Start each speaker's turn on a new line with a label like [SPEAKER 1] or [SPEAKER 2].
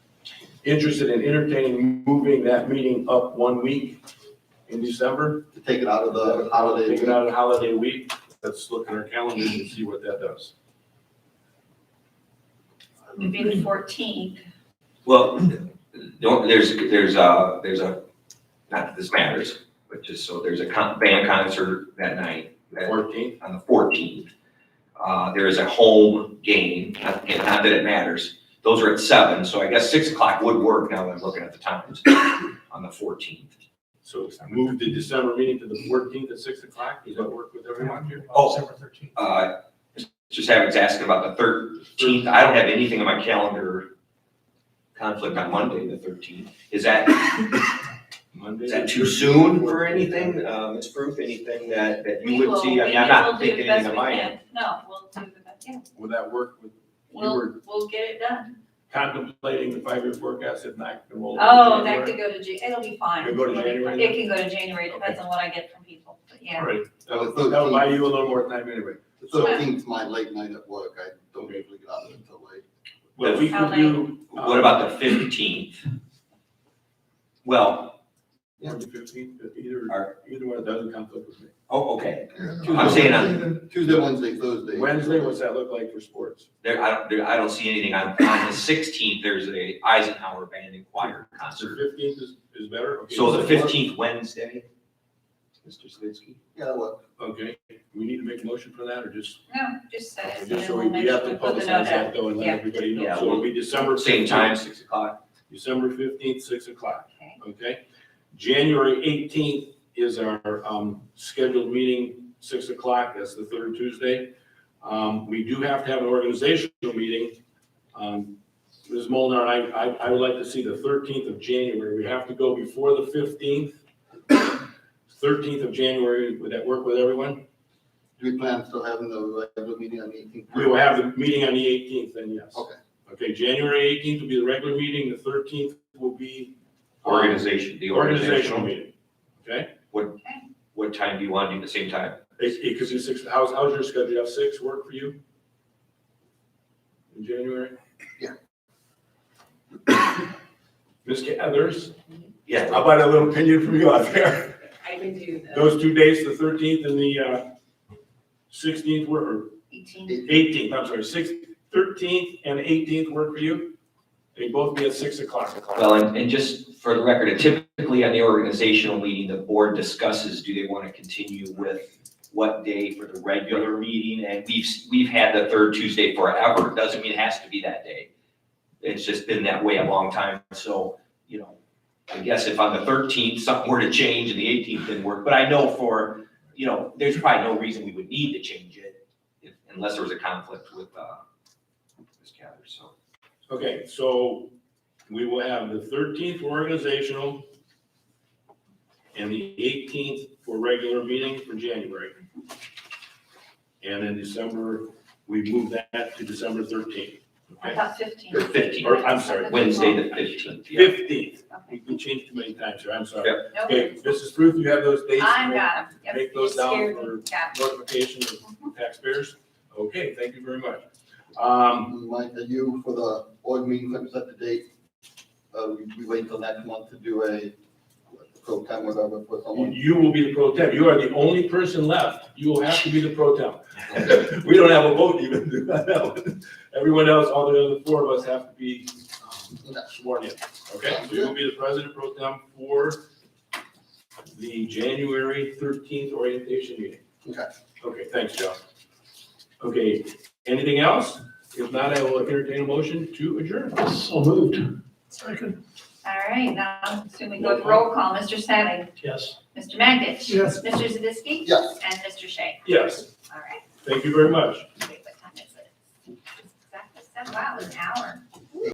[SPEAKER 1] interested in entertaining moving that meeting up one week in December.
[SPEAKER 2] to take it out of the holiday.
[SPEAKER 1] Take it out of holiday week. Let's look at our calendars and see what that does.
[SPEAKER 3] It'd be the fourteenth.
[SPEAKER 4] Well, don't, there's, there's a, there's a, not that this matters, but just so, there's a con- band concert that night, that-
[SPEAKER 1] Fourteenth,
[SPEAKER 4] on the fourteenth. Uh, there is a home game, not, again, not that it matters. Those are at seven, so I guess six o'clock would work now that I'm looking at the times on the fourteenth.
[SPEAKER 1] so move the December meeting to the fourteenth at six o'clock. Does that work with everyone here?
[SPEAKER 4] Oh.
[SPEAKER 5] December thirteenth.
[SPEAKER 4] Uh, just having to ask about the thirteenth. I don't have anything on my calendar conflict on Monday, the thirteenth. Is that,
[SPEAKER 1] Monday.
[SPEAKER 4] Is that too soon for anything, uh, Ms. Proof, anything that, that you would see? I mean, I'm not thinking anything of mine.
[SPEAKER 3] No, we'll do the best, yeah,
[SPEAKER 1] Would that work with, we
[SPEAKER 3] we'll,
[SPEAKER 1] were
[SPEAKER 3] we'll get it done.
[SPEAKER 1] contemplating the five-year forecast if not, then we'll.
[SPEAKER 3] Oh, that could go to Ja, it'll be fine.
[SPEAKER 1] It'll go to January?
[SPEAKER 3] It can go to January, depends on what I get from people, but yeah.
[SPEAKER 1] All right, that'll, that'll buy you a little more time anyway.
[SPEAKER 2] The thirteenth's my late night at work, I don't usually get out of it until late.
[SPEAKER 1] What we
[SPEAKER 3] How
[SPEAKER 1] could
[SPEAKER 3] late?
[SPEAKER 1] do. um,
[SPEAKER 4] What about the fifteenth? Well,
[SPEAKER 1] Or the fifteenth, either,
[SPEAKER 4] Alright.
[SPEAKER 1] either one, it doesn't conflict with me.
[SPEAKER 4] oh, okay,
[SPEAKER 2] Yeah.
[SPEAKER 4] I'm saying
[SPEAKER 2] Tuesday, Wednesday, Thursday.
[SPEAKER 1] Wednesday, what's that look like for sports?
[SPEAKER 4] there, I don't, there, I don't see anything. On, on the sixteenth, there's a Eisenhower Band and Choir
[SPEAKER 1] So
[SPEAKER 4] concert.
[SPEAKER 1] fifteenth is, is better? Okay,
[SPEAKER 4] So the
[SPEAKER 1] does that work?
[SPEAKER 4] fifteenth Wednesday, Mr. Slidsky?
[SPEAKER 2] Yeah, what,
[SPEAKER 1] Okay, we need to make a motion for that, or just,
[SPEAKER 3] No, just say it, and
[SPEAKER 1] just
[SPEAKER 3] then
[SPEAKER 1] so
[SPEAKER 3] we'll
[SPEAKER 1] we, we
[SPEAKER 3] make
[SPEAKER 1] have
[SPEAKER 3] sure we
[SPEAKER 1] to
[SPEAKER 3] put the
[SPEAKER 1] publicize
[SPEAKER 3] note out.
[SPEAKER 1] that though, and let
[SPEAKER 3] Yeah.
[SPEAKER 1] everybody know,
[SPEAKER 4] Yeah,
[SPEAKER 1] so it'll be December.
[SPEAKER 4] Same
[SPEAKER 1] 15th,
[SPEAKER 4] time, six o'clock.
[SPEAKER 1] December fifteenth, six o'clock,
[SPEAKER 3] Okay.
[SPEAKER 1] okay? January eighteenth is our, um, scheduled meeting, six o'clock, that's the third Tuesday. Um, we do have to have an organizational meeting. Um, Ms. Molnar, I, I, I would like to see the thirteenth of January, we have to go before the fifteenth. Thirteenth of January, would that work with everyone?
[SPEAKER 2] do we plan still having the regular meeting on the eighteenth?
[SPEAKER 1] We will have the meeting on the eighteenth then, yes.
[SPEAKER 2] Okay.
[SPEAKER 1] Okay, January eighteenth will be the regular meeting, the thirteenth will be. um,
[SPEAKER 4] Organization, the
[SPEAKER 1] The organizational
[SPEAKER 4] organizational.
[SPEAKER 1] meeting, okay?
[SPEAKER 4] What time do you want to do the same time?
[SPEAKER 1] It, it could be eh, six, how's, how's your schedule, you have six work for you? In January?
[SPEAKER 2] Yeah.
[SPEAKER 1] Ms. Cathers,
[SPEAKER 4] Yeah,
[SPEAKER 1] how about a little opinion from you out there?
[SPEAKER 6] I can do the
[SPEAKER 1] Those two dates, the thirteenth and the, uh, sixteenth were,
[SPEAKER 3] Eighteen,
[SPEAKER 1] eighteenth, I'm sorry, six, thirteenth and eighteenth work for you? They both be at six o'clock.
[SPEAKER 4] Well, and, and just for the record, typically on the organizational meeting, the board discusses, do they want to continue with what day for the regular meeting? And we've, we've had the third Tuesday forever. Doesn't mean it has to be that day. It's just been that way a long time. So, you know, I guess if on the thirteenth, something were to change and the eighteenth didn't work, but I know for, you know, there's probably no reason we would need to change it if- unless there was a conflict with, uh, Ms. Cather, so.
[SPEAKER 1] Okay, so we will have the thirteenth for organizational and the eighteenth for regular meeting for January. And in December, we move that to December thirteenth.
[SPEAKER 3] I thought fifteen.
[SPEAKER 4] Or 15,
[SPEAKER 1] or I'm sorry,
[SPEAKER 4] Wednesday the fifteenth.
[SPEAKER 1] Fifteenth,
[SPEAKER 3] Okay.
[SPEAKER 1] we can change too many times here, I'm sorry.
[SPEAKER 3] Nope.
[SPEAKER 1] Okay, Mrs. Ruth, you have those dates?
[SPEAKER 3] I got them, yep.
[SPEAKER 1] Make those
[SPEAKER 3] It
[SPEAKER 1] down
[SPEAKER 3] scared
[SPEAKER 1] for-
[SPEAKER 3] me. Got 'em.
[SPEAKER 1] Notification of taxpayers? Okay, thank you very much. Um,
[SPEAKER 2] Mike, are uh, you for the board meeting, let me set the date? Uh, we- we wait till next month to do a, pro time whatever for
[SPEAKER 1] you-
[SPEAKER 2] someone.
[SPEAKER 1] you will be the pro temp, you are the only person left, you will have to be the pro temp. We don't have a vote even. Everyone else, all the other four of us have to be um, sworn in, okay? So you'll be the president pro tem for the January thirteenth orientation meeting.
[SPEAKER 2] Okay.
[SPEAKER 1] Okay, thanks, Joe. Okay, anything else? If not, I will entertain a motion to adjourn.
[SPEAKER 5] So moved. Second.
[SPEAKER 3] All right, now, I'm assuming go with roll call, Mr. Savick,
[SPEAKER 5] Yes.
[SPEAKER 3] Mr. Magich.
[SPEAKER 5] Yes.
[SPEAKER 3] Mr. Zadisky.
[SPEAKER 2] Yes.
[SPEAKER 3] And Mr. Shea.
[SPEAKER 1] Yes,
[SPEAKER 3] All right,
[SPEAKER 1] thank you very much.
[SPEAKER 3] wait, what time is it? Exactly, seven, wow, it's